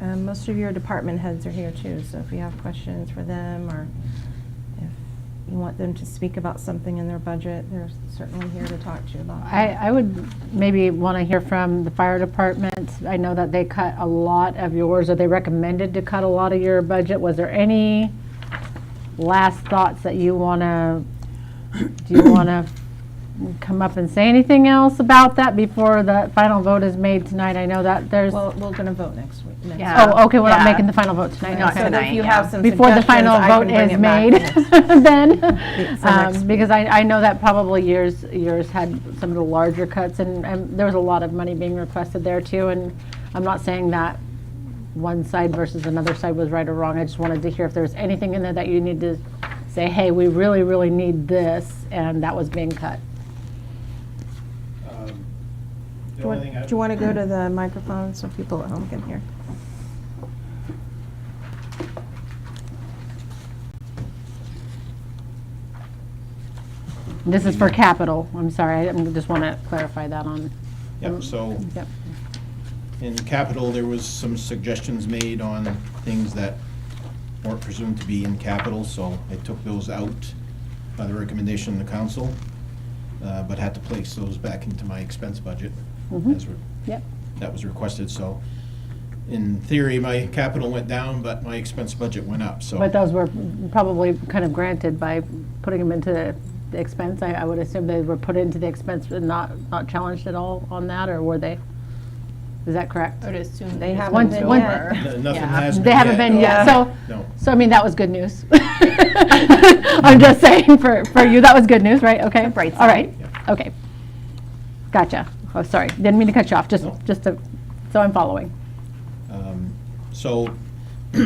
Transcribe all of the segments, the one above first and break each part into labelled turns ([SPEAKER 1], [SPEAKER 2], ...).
[SPEAKER 1] Um, Most of your department heads are here too, so if you have questions for them or if you want them to speak about something in their budget, they're certainly here to talk to you about
[SPEAKER 2] I,
[SPEAKER 1] that.
[SPEAKER 2] I would maybe want to hear from the fire department. I know that they cut a lot of yours, or they recommended to cut a lot of your budget. Was there any last thoughts that you want to, do you want to come up and say anything else about that before the final vote is made tonight? I know that there's,
[SPEAKER 1] Well,
[SPEAKER 2] oh,
[SPEAKER 1] we're going to vote next week. next
[SPEAKER 3] Yeah.
[SPEAKER 1] week.
[SPEAKER 2] okay, we're not
[SPEAKER 3] Yeah.
[SPEAKER 2] making the final vote tonight.
[SPEAKER 3] Not
[SPEAKER 2] okay.
[SPEAKER 1] So if
[SPEAKER 3] tonight,
[SPEAKER 1] you
[SPEAKER 3] yeah.
[SPEAKER 1] have some
[SPEAKER 2] Before the final
[SPEAKER 1] suggestions, I
[SPEAKER 2] vote
[SPEAKER 1] can bring
[SPEAKER 2] is
[SPEAKER 1] it back
[SPEAKER 2] made,
[SPEAKER 1] next week.
[SPEAKER 2] then,
[SPEAKER 1] for next
[SPEAKER 2] um, because I, I know that probably yours, yours had some of the larger cuts, and, and there was a lot of money being requested there too, and I'm not saying that one side versus another side was right or wrong, I just wanted to hear if there was anything in there that you need to say, hey, we really, really need this, and that was being cut.
[SPEAKER 4] Um,
[SPEAKER 1] Do
[SPEAKER 4] The
[SPEAKER 1] you
[SPEAKER 4] only
[SPEAKER 1] want-
[SPEAKER 4] thing I.
[SPEAKER 1] do you want to go to the microphone so people at home can hear?
[SPEAKER 2] This is for capital, I'm sorry, I just want to clarify that on.
[SPEAKER 4] Yep, so
[SPEAKER 2] Yep.
[SPEAKER 4] in capital, there was some suggestions made on things that weren't presumed to be in capital, so I took those out by the recommendation of the council, uh, but had to place those back into my expense budget
[SPEAKER 2] Mhm.
[SPEAKER 4] as re-
[SPEAKER 2] Yep,
[SPEAKER 4] that was requested, so in theory, my capital went down, but my expense budget went up, so.
[SPEAKER 2] but those were probably kind of granted by putting them into the expense, I, I would assume they were put into the expense and not, not challenged at all on that, or were they? Is that correct?
[SPEAKER 3] I would assume
[SPEAKER 1] They
[SPEAKER 3] it's
[SPEAKER 1] haven't
[SPEAKER 3] once
[SPEAKER 2] been
[SPEAKER 3] over.
[SPEAKER 2] yet.
[SPEAKER 4] No- Nothing
[SPEAKER 3] Yeah.
[SPEAKER 4] has been
[SPEAKER 2] They haven't been yet, so,
[SPEAKER 4] No.
[SPEAKER 2] so I mean, that was good news. I'm just saying, for, for you, that was good news, right? Okay,
[SPEAKER 3] bright
[SPEAKER 2] all right,
[SPEAKER 4] side.
[SPEAKER 2] okay. Gotcha, oh, sorry, didn't mean to cut you off, just,
[SPEAKER 4] No.
[SPEAKER 2] just to, so I'm following.
[SPEAKER 4] Um, So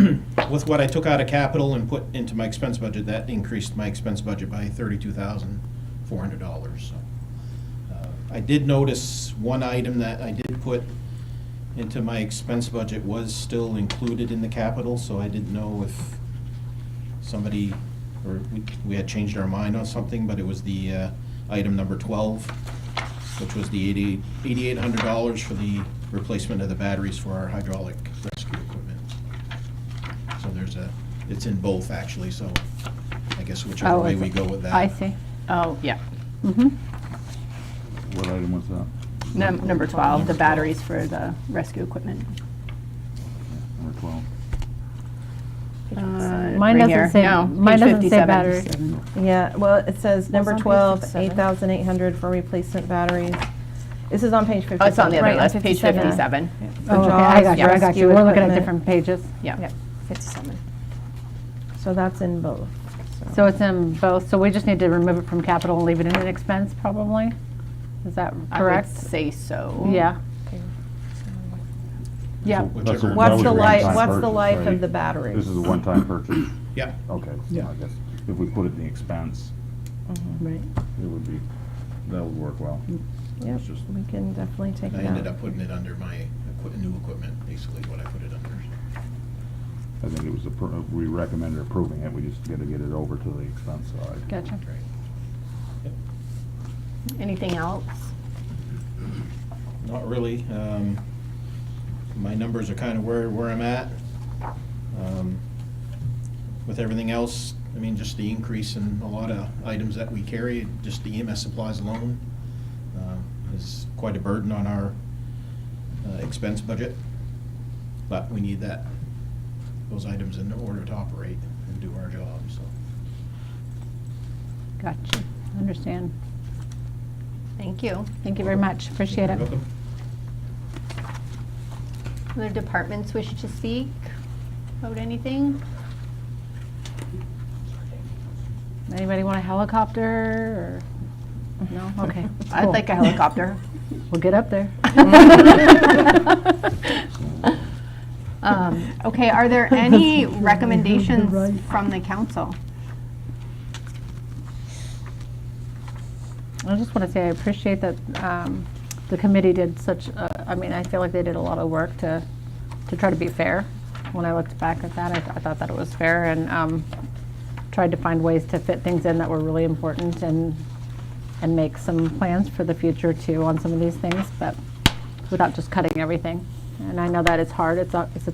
[SPEAKER 4] with what I took out of capital and put into my expense budget, that increased my expense budget by thirty-two thousand, four hundred dollars. I did notice one item that I did put into my expense budget was still included in the capital, so I didn't know if somebody, or we- we had changed our mind on something, but it was the uh, item number twelve, which was the eighty, eighty-eight hundred dollars for the replacement of the batteries for our hydraulic rescue equipment. So there's a, it's in both actually, so I guess whichever
[SPEAKER 2] Oh,
[SPEAKER 4] way
[SPEAKER 2] is
[SPEAKER 4] we
[SPEAKER 2] it-
[SPEAKER 4] go with that.
[SPEAKER 2] I see,
[SPEAKER 3] Oh, yeah.
[SPEAKER 2] mhm,
[SPEAKER 5] What item was that?
[SPEAKER 3] Num- Number 12, the batteries for the rescue equipment.
[SPEAKER 5] Number 12.
[SPEAKER 3] Uh,
[SPEAKER 2] Mine
[SPEAKER 3] right
[SPEAKER 2] doesn't
[SPEAKER 3] here.
[SPEAKER 2] say-
[SPEAKER 3] No,
[SPEAKER 2] mine
[SPEAKER 3] page
[SPEAKER 2] doesn't say
[SPEAKER 3] 57.
[SPEAKER 2] battery.
[SPEAKER 1] Yeah, well, it says number
[SPEAKER 2] on page
[SPEAKER 1] 12,
[SPEAKER 2] 57?
[SPEAKER 1] 8,800 for replacement batteries. This is on page 57.
[SPEAKER 3] Oh, it's on the other
[SPEAKER 2] Right,
[SPEAKER 3] list, page 57.
[SPEAKER 1] For
[SPEAKER 2] Oh, okay, I
[SPEAKER 1] JAWS
[SPEAKER 2] got you, I got
[SPEAKER 1] rescue
[SPEAKER 2] you, we're looking at
[SPEAKER 1] equipment.
[SPEAKER 2] different pages.
[SPEAKER 3] Yeah,
[SPEAKER 1] Yep.
[SPEAKER 3] 57.
[SPEAKER 1] So that's in both.
[SPEAKER 2] So it's in both, so we just need to remove it from capital and leave it in an expense probably? Is that
[SPEAKER 3] Correct?
[SPEAKER 2] correct?
[SPEAKER 3] Say so.
[SPEAKER 2] Yeah. Yeah,
[SPEAKER 5] That's a-
[SPEAKER 1] What's
[SPEAKER 5] that
[SPEAKER 1] the
[SPEAKER 5] was a
[SPEAKER 1] life,
[SPEAKER 5] one-time
[SPEAKER 1] what's the
[SPEAKER 5] purchase,
[SPEAKER 1] life
[SPEAKER 5] right?
[SPEAKER 1] of the battery?
[SPEAKER 5] This is a one-time purchase?
[SPEAKER 4] Yeah,
[SPEAKER 5] Okay, so I guess if we put it in the expense,
[SPEAKER 1] Mm-hmm.
[SPEAKER 2] right.
[SPEAKER 5] it would be, that would work well.
[SPEAKER 1] Yep,
[SPEAKER 5] It's just-
[SPEAKER 1] we can definitely take
[SPEAKER 4] I
[SPEAKER 1] it
[SPEAKER 4] ended
[SPEAKER 1] out.
[SPEAKER 4] up putting it under my equi- new equipment, basically what I put it under.
[SPEAKER 5] I think it was, appro- we recommended approving it, we just gotta get it over to the expense side.
[SPEAKER 2] Gotcha.
[SPEAKER 4] Right.
[SPEAKER 3] Anything else?
[SPEAKER 4] Not really. Um, My numbers are kind of where, where I'm at. Um, With everything else, I mean, just the increase in a lot of items that we carry, just the EMS supplies alone uh, is quite a burden on our uh, expense budget. But we need that, those items in order to operate and do our job, so.
[SPEAKER 2] Gotcha, understand.
[SPEAKER 3] Thank you.
[SPEAKER 2] Thank you very much, appreciate
[SPEAKER 4] You're
[SPEAKER 2] it.
[SPEAKER 4] welcome.
[SPEAKER 3] Other departments wish to speak about anything?
[SPEAKER 2] Anybody want a helicopter or, no, okay.
[SPEAKER 3] I'd
[SPEAKER 2] cool.
[SPEAKER 3] like a helicopter.
[SPEAKER 2] We'll get up there.
[SPEAKER 3] Um, Okay, are there any recommendations from the council?
[SPEAKER 2] I just want to say I appreciate that um, the committee did such, a- I mean, I feel like they did a lot of work to, to try to be fair. When I looked back at that, I th- I thought that it was fair and um, tried to find ways to fit things in that were really important and, and make some plans for the future too on some of these things, but without just cutting everything. And I know that it's hard, it's a, it's a